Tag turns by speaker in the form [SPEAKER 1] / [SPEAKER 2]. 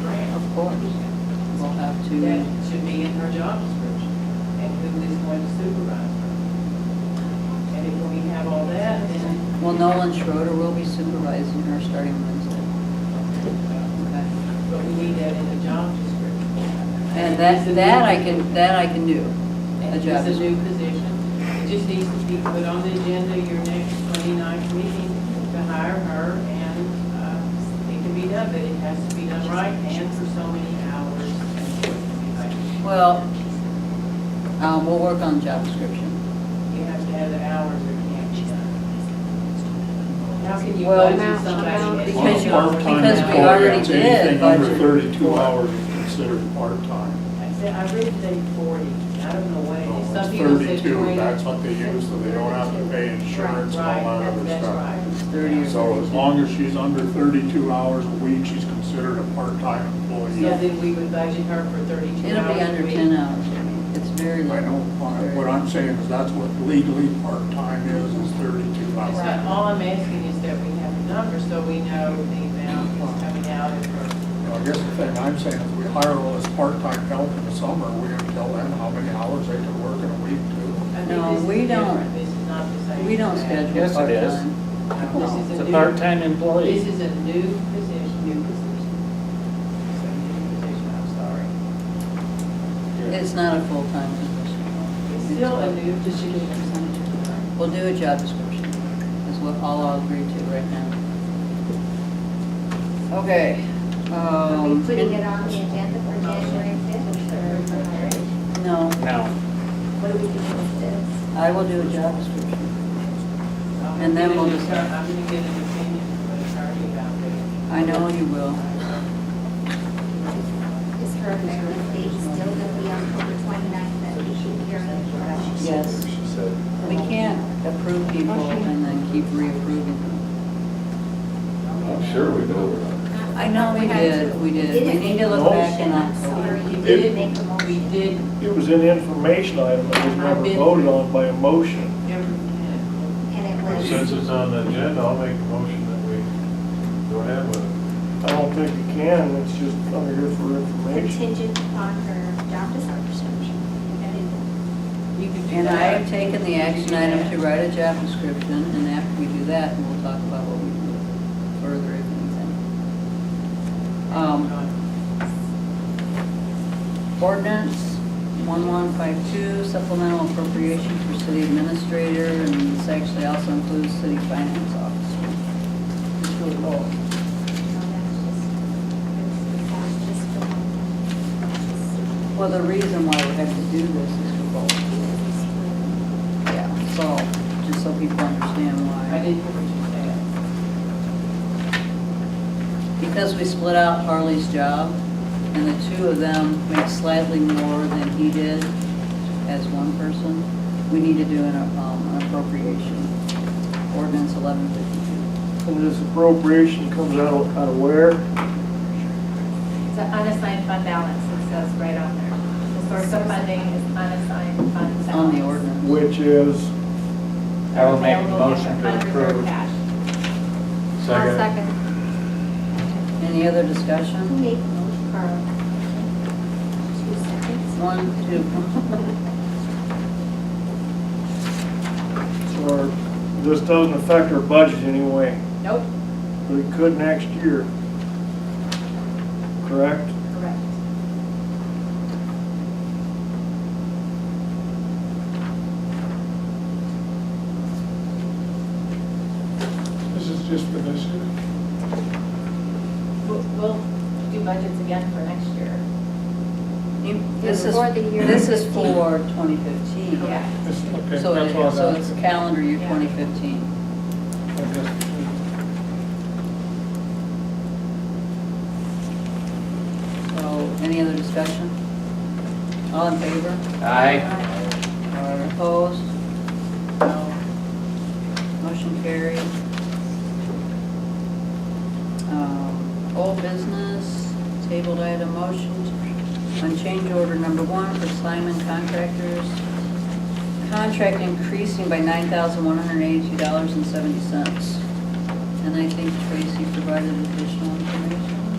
[SPEAKER 1] course. We'll have
[SPEAKER 2] That
[SPEAKER 1] to,
[SPEAKER 2] should be in her job description, and who is going to supervise her. And if we have all that, then,
[SPEAKER 1] well, Nolan Schroeder will be supervising her starting Wednesday. Okay.
[SPEAKER 2] but we need that in the job description.
[SPEAKER 1] And that, that I can, that I can do.
[SPEAKER 2] And
[SPEAKER 1] job
[SPEAKER 2] It's a new position, it just needs to be put on the agenda your next 29th meeting to hire her, and uh, it can be done, but it has to be done right and for so many hours.
[SPEAKER 1] Well, uh, we'll work on job description.
[SPEAKER 2] You have to have the hours or it can't be done. How can you
[SPEAKER 1] Well,
[SPEAKER 2] budget
[SPEAKER 3] amount-
[SPEAKER 2] somebody?
[SPEAKER 3] amount.
[SPEAKER 2] at
[SPEAKER 4] On
[SPEAKER 1] Because
[SPEAKER 4] a
[SPEAKER 1] you-
[SPEAKER 4] part-time
[SPEAKER 1] because we
[SPEAKER 4] employee,
[SPEAKER 1] already did
[SPEAKER 4] anything under
[SPEAKER 1] budget.
[SPEAKER 4] thirty-two hours is considered part-time.
[SPEAKER 2] I said, I read today forty, I don't know what it is,
[SPEAKER 4] So
[SPEAKER 2] some
[SPEAKER 4] it's
[SPEAKER 2] people said
[SPEAKER 4] Thirty-two,
[SPEAKER 2] twenty.
[SPEAKER 4] that's what they use, so they don't have to pay insurance and all
[SPEAKER 2] Right,
[SPEAKER 4] that other
[SPEAKER 2] that's
[SPEAKER 4] stuff.
[SPEAKER 2] right.
[SPEAKER 1] Thirty or-
[SPEAKER 4] So as long as she's under thirty-two hours a week, she's considered a part-time employee.
[SPEAKER 2] Yeah, then we would budget her for thirty-two
[SPEAKER 1] It'll be
[SPEAKER 2] hours a
[SPEAKER 1] under
[SPEAKER 2] week.
[SPEAKER 1] ten hours. It's very
[SPEAKER 4] I know, uh,
[SPEAKER 1] little.
[SPEAKER 4] what I'm saying is that's what legally part-time is, is thirty-two
[SPEAKER 2] That's
[SPEAKER 4] hours.
[SPEAKER 2] right. all I'm asking is that we have a number so we know the amount that's coming out of her.
[SPEAKER 4] Now, I guess the thing I'm saying is we hire all this part-time help in the summer, we have to tell them how many hours they can work in a week too.
[SPEAKER 2] I think
[SPEAKER 1] No,
[SPEAKER 2] this is
[SPEAKER 1] we don't.
[SPEAKER 2] different. This is not the same.
[SPEAKER 1] We don't
[SPEAKER 2] as that.
[SPEAKER 1] schedule
[SPEAKER 5] Yes, it is.
[SPEAKER 1] part-time.
[SPEAKER 2] This is
[SPEAKER 5] It's
[SPEAKER 2] a
[SPEAKER 5] a
[SPEAKER 2] new-
[SPEAKER 5] part-time
[SPEAKER 2] This
[SPEAKER 5] employee.
[SPEAKER 2] is a new position, new position. It's a new position, I'm sorry.
[SPEAKER 1] It's not a full-time position.
[SPEAKER 2] It's still a new position.
[SPEAKER 1] We'll do a job description, is what all I'll agree to right now. Okay.
[SPEAKER 3] Are we
[SPEAKER 1] um,
[SPEAKER 3] putting it on the agenda for January fifth or for,
[SPEAKER 1] No,
[SPEAKER 5] No,
[SPEAKER 3] what are we doing with this?
[SPEAKER 1] I will do a job description.
[SPEAKER 2] I'm
[SPEAKER 1] And then
[SPEAKER 2] gonna
[SPEAKER 1] we'll
[SPEAKER 2] get
[SPEAKER 1] just-
[SPEAKER 2] an- I'm gonna get an opinion from an attorney about this.
[SPEAKER 1] I know you will.
[SPEAKER 3] Is her effective date still gonna be October twenty-ninth, that we should hear it?
[SPEAKER 1] Yes. We can't approve people and then keep reapproving them.
[SPEAKER 6] I'm sure we know we're not.
[SPEAKER 1] I know we
[SPEAKER 3] had
[SPEAKER 1] did,
[SPEAKER 3] to.
[SPEAKER 1] we did. We
[SPEAKER 3] didn't
[SPEAKER 1] need
[SPEAKER 3] make
[SPEAKER 1] to
[SPEAKER 3] a
[SPEAKER 1] look back
[SPEAKER 3] motion.
[SPEAKER 1] and
[SPEAKER 3] I'm
[SPEAKER 1] not.
[SPEAKER 3] sorry,
[SPEAKER 2] We
[SPEAKER 3] you
[SPEAKER 2] did.
[SPEAKER 3] didn't make a motion.
[SPEAKER 2] We did
[SPEAKER 7] It was an information item that was never voted on by a motion.
[SPEAKER 2] everything.
[SPEAKER 3] And it was.
[SPEAKER 6] Since it's on the agenda, I'll make a motion that we go ahead with it.
[SPEAKER 7] I don't think you can, it's just under here for information.
[SPEAKER 3] contingent upon her job description.
[SPEAKER 2] You could do
[SPEAKER 1] And I
[SPEAKER 2] that.
[SPEAKER 1] have taken the action item to write a job description, and after we do that, we'll talk about what we do further if anything. Um, Ordinance 1152 supplemental appropriation for city administrator, and this actually also includes city finance officer. It's really low. Well, the reason why we have to do this is for both. Yeah, so, just so people understand
[SPEAKER 2] I
[SPEAKER 1] why.
[SPEAKER 2] didn't hear what
[SPEAKER 1] Because we split out Harley's job, and the two of them make slightly more than he did as one person, we need to do an um, an appropriation, ordinance 1152.
[SPEAKER 7] And this appropriation comes out of, out of where?
[SPEAKER 8] It's an unassigned fund balance, it says right on there. The source of funding is unassigned fund balance.
[SPEAKER 1] on the ordinance.
[SPEAKER 7] Which is,
[SPEAKER 5] I will make a
[SPEAKER 8] Available
[SPEAKER 5] motion to
[SPEAKER 8] unreserved
[SPEAKER 5] approve.
[SPEAKER 8] cash.
[SPEAKER 3] second.
[SPEAKER 1] Any other
[SPEAKER 3] Who
[SPEAKER 1] discussion?
[SPEAKER 3] made the motion, Carl? Two seconds.
[SPEAKER 1] One, two.
[SPEAKER 7] or, this doesn't affect our budget anyway,
[SPEAKER 8] Nope,
[SPEAKER 7] but it could next year. Correct?
[SPEAKER 8] correct.
[SPEAKER 4] This is just for this year?
[SPEAKER 8] We'll, we'll do budgets again for next year.
[SPEAKER 1] You- This is,
[SPEAKER 3] For the year
[SPEAKER 1] this is
[SPEAKER 3] 15.
[SPEAKER 1] for 2015.
[SPEAKER 8] Yeah.
[SPEAKER 4] This- okay,
[SPEAKER 1] So
[SPEAKER 4] that's
[SPEAKER 1] it-
[SPEAKER 4] all
[SPEAKER 1] so
[SPEAKER 4] that.
[SPEAKER 1] it's calendar year
[SPEAKER 8] Yeah.
[SPEAKER 1] 2015. So, any other discussion? All in favor?
[SPEAKER 5] aye.
[SPEAKER 1] Or Opposed? No. Motion carried. Um, Old business, tabled item motions on change order number one for Simon Contractors. Contract increasing by nine thousand one hundred eighty-two dollars and seventy cents. And I think Tracy provided additional information.